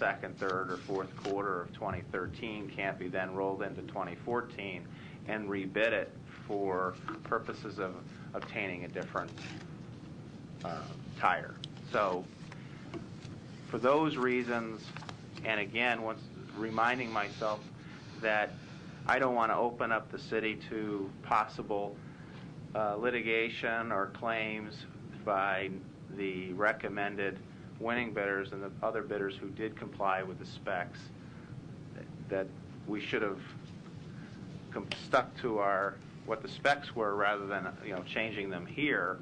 second, third, or fourth quarter of 2013 can't be then rolled into 2014 and rebid it for purposes of obtaining a different uh, tire. So for those reasons, and again, once reminding myself that I don't want to open up the city to possible uh, litigation or claims by the recommended winning bidders and the other bidders who did comply with the specs, that we should have com- stuck to our, what the specs were rather than, you know, changing them here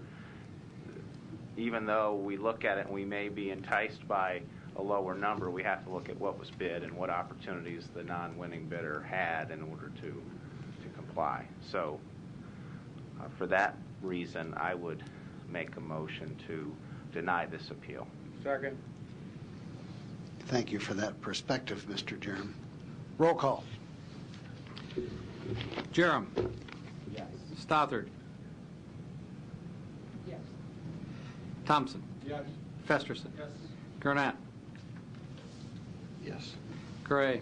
even though we look at it and we may be enticed by a lower number, we have to look at what was bid and what opportunities the non-winning bidder had in order to, to comply. So uh, for that reason, I would make a motion to deny this appeal. Second. Thank you for that perspective, Mr. Jerem. Roll call. Jerem. Yes. Stothard. Yes. Thompson. Yes. Festerson. Yes. Gurnett. Yes. Gray.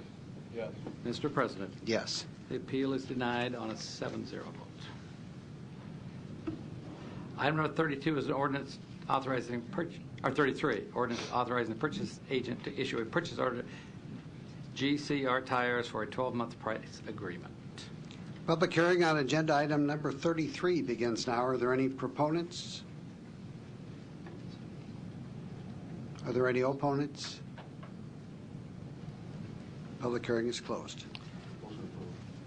Yes. Mr. President, Yes. the appeal is denied on a 7-0 vote. Item number 32 is an ordinance authorizing, purch- or 33, ordinance authorizing the purchase agent to issue a purchase order GCR tires for a 12-month price agreement. Public hearing on agenda item number 33 begins now. Are there any proponents? Are there any opponents? Public hearing is closed.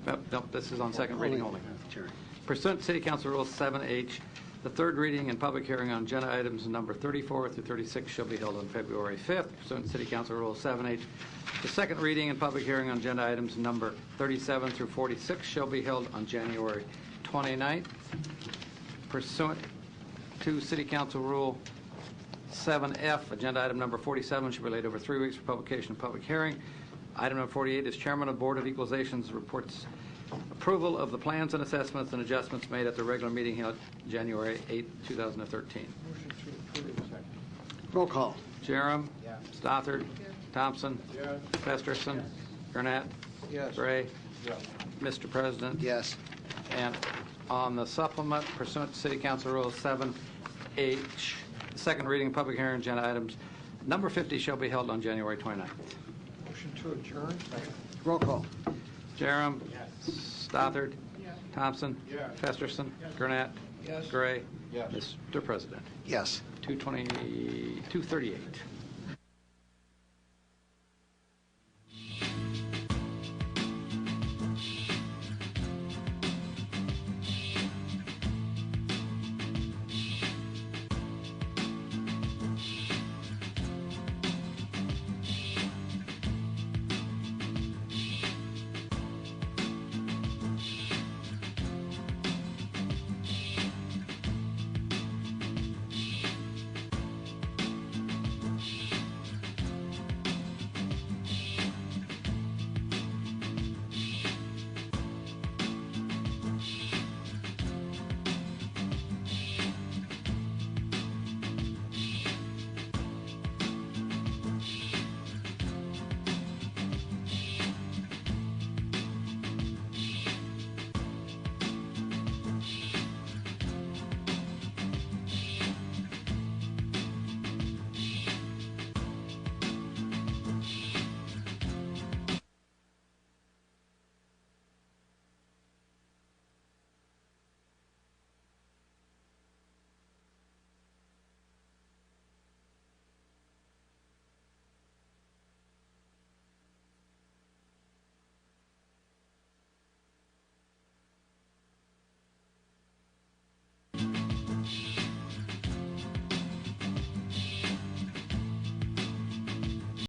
Nope, nope, this is on second reading only. Jerry. Pursuant to City Council Rule 7H, the third reading and public hearing on agenda items number 34 through 36 shall be held on February 5th. Pursuant to City Council Rule 7H, the second reading and public hearing on agenda items number 37 through 46 shall be held on January 29th. Pursuant to City Council Rule 7F, agenda item number 47 should be laid over three weeks for publication and public hearing. Item number 48 is Chairman of Board of Equalization's reports approval of the plans and assessments and adjustments made at the regular meeting held January 8, 2013. Motion to approve. Second. Roll call. Jerem. Yes. Stothard. Thompson. Yes. Festerson. Gurnett. Yes. Gray. Yes. Mr. President. Yes. And on the supplement pursuant to City Council Rule 7H, second reading, public hearing, agenda items number 50 shall be held on January 29th. Motion to adjourn. Second. Roll call. Jerem. Yes. Stothard. Thompson. Yes. Festerson. Gurnett. Yes. Gray. Yes. Mr. President. Yes. 220, 238.